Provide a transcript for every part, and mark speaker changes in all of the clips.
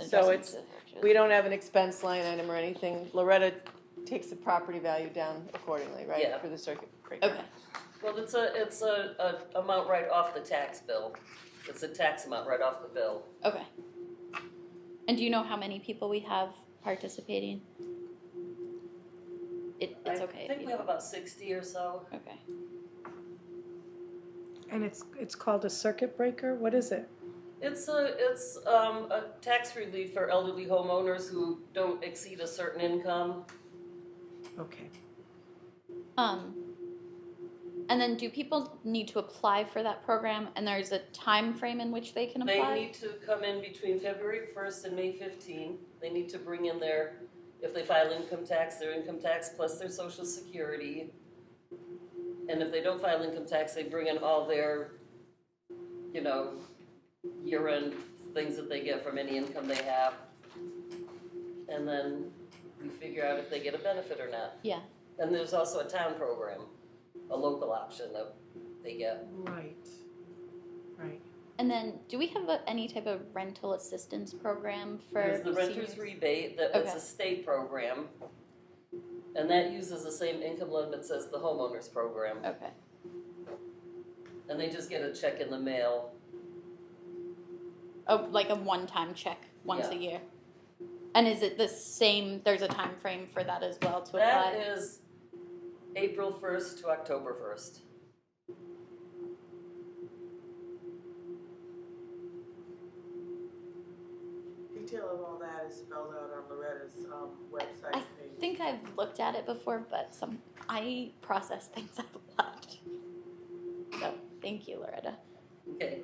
Speaker 1: so it's, we don't have an expense line item or anything. Loretta takes the property value down accordingly,
Speaker 2: Yeah.
Speaker 1: right, for the circuit breaker?
Speaker 3: Okay,
Speaker 2: Well, it's a, it's a, a amount right off the tax bill. It's a tax amount right off the bill.
Speaker 3: okay. And do you know how many people we have participating? It, it's okay
Speaker 2: I
Speaker 3: if
Speaker 2: think
Speaker 3: you
Speaker 2: we have about sixty or so.
Speaker 3: don't. Okay.
Speaker 4: And it's, it's called a circuit breaker? What is it?
Speaker 2: It's a, it's, um, a tax relief for elderly homeowners who don't exceed a certain income.
Speaker 4: Okay.
Speaker 3: Um, and then do people need to apply for that program? And there's a time frame in which they can
Speaker 2: They
Speaker 3: apply?
Speaker 2: need to come in between February first and May fifteen. They need to bring in their, if they file income tax, their income tax plus their social security. And if they don't file income tax, they bring in all their, you know, year-end things that they get from any income they have. And then we figure out if they get a benefit or not.
Speaker 3: Yeah.
Speaker 2: And there's also a town program, a local option that they get.
Speaker 4: Right. Right.
Speaker 3: And then do we have a, any type of rental assistance program for
Speaker 2: There's the renter's
Speaker 3: seniors?
Speaker 2: rebate, that it's
Speaker 3: Okay.
Speaker 2: a state program. And that uses the same income limits as the homeowner's program.
Speaker 3: Okay.
Speaker 2: And they just get a check in the mail.
Speaker 3: Oh, like a one-time check once
Speaker 2: Yeah.
Speaker 3: a year. And is it the same? There's a time frame for that as well to
Speaker 2: That
Speaker 3: apply.
Speaker 2: is April first to October first.
Speaker 5: Detail of all that is spelled out on Loretta's um, website
Speaker 3: I
Speaker 5: page.
Speaker 3: I think I've looked at it before, but some I process things a lot. So thank you, Loretta.
Speaker 2: Okay,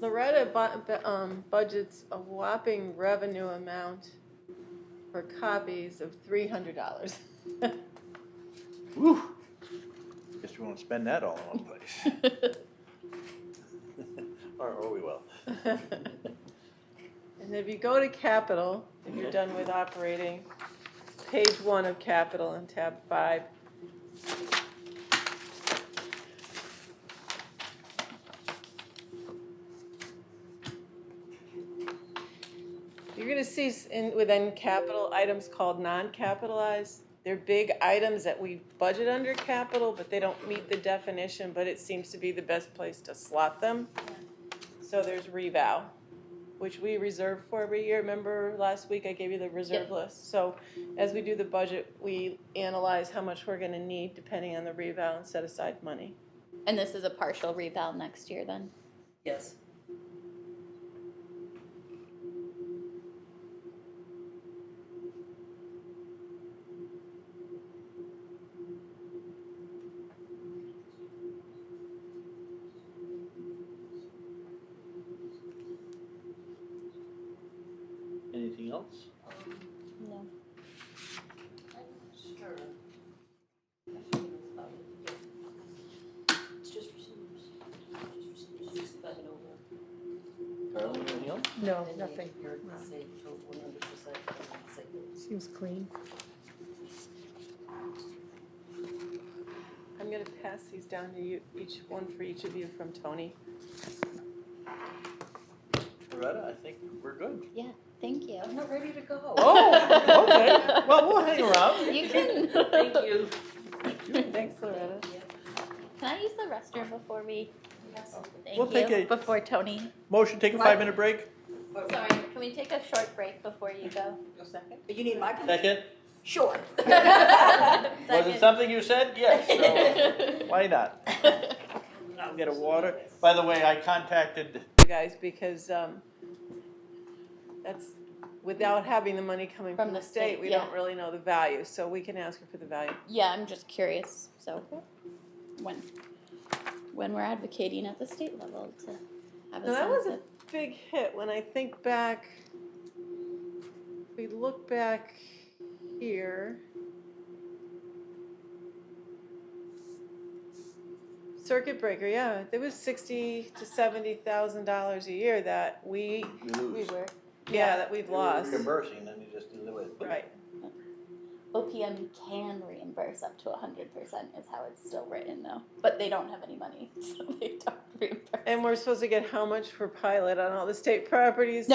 Speaker 1: Loretta bu- bu- um, budgets a whopping revenue amount for copies of three hundred dollars.
Speaker 6: Woo! Guess we won't spend that all in one place. Or, or we will.
Speaker 1: And if you go to capital, if you're done with operating, page one of capital and tab five. You're gonna see s- in, within capital, items called non-capitalized. They're big items that we budget under capital, but they don't meet the definition, but it seems to be the best place to slot them. So there's revow, which we reserve for every year. Remember last week I gave you the reserve
Speaker 3: Yep.
Speaker 1: list? So as we do the budget, we analyze how much we're gonna need depending on the revow and set aside money.
Speaker 3: And this is a partial reval next year, then.
Speaker 2: yes.
Speaker 6: Anything else?
Speaker 3: No.
Speaker 2: Sure. It's just
Speaker 6: Carly, anything else?
Speaker 4: No, nothing. No.
Speaker 2: percent.
Speaker 4: Seems clean.
Speaker 1: I'm gonna pass these down to you, each one for each of you from Tony.
Speaker 6: Loretta, I think we're good.
Speaker 3: Thank you.
Speaker 2: I'm not ready to go.
Speaker 6: Oh, okay. Well, we'll hang around.
Speaker 3: You can.
Speaker 2: Thank you.
Speaker 1: Thanks, Loretta.
Speaker 3: Can I use the restroom before we? Thank
Speaker 6: We'll
Speaker 3: you.
Speaker 6: take a-
Speaker 3: Before Tony.
Speaker 6: Motion, take a five-minute break.
Speaker 3: Sorry, can we take a short break before you go?
Speaker 7: You need my,
Speaker 6: Second.
Speaker 7: sure.
Speaker 6: Was it something you said? Yes. So why not? I'll get a water. By the way, I contacted.
Speaker 1: You guys, because, um, that's, without having the money coming
Speaker 3: From
Speaker 1: from the
Speaker 3: the
Speaker 1: state,
Speaker 3: state,
Speaker 1: we
Speaker 3: yeah.
Speaker 1: don't really know the value, so we can ask her for the value.
Speaker 3: Yeah, I'm just curious. So, when when we're advocating at the state level to have a
Speaker 1: No, that was a
Speaker 3: sunset.
Speaker 1: big hit. When I think back, we look back here. Circuit breaker, yeah, there was sixty to seventy thousand dollars a year that we,
Speaker 6: We lose.
Speaker 3: we were
Speaker 1: yeah, that we've lost,
Speaker 6: Reimbursing, then you just deliver it.
Speaker 1: right?
Speaker 3: OPM can reimburse up to 100% is how it's still written though. But they don't have any money, so they don't reimburse.
Speaker 1: And we're supposed to get how much for pilot on all the state properties?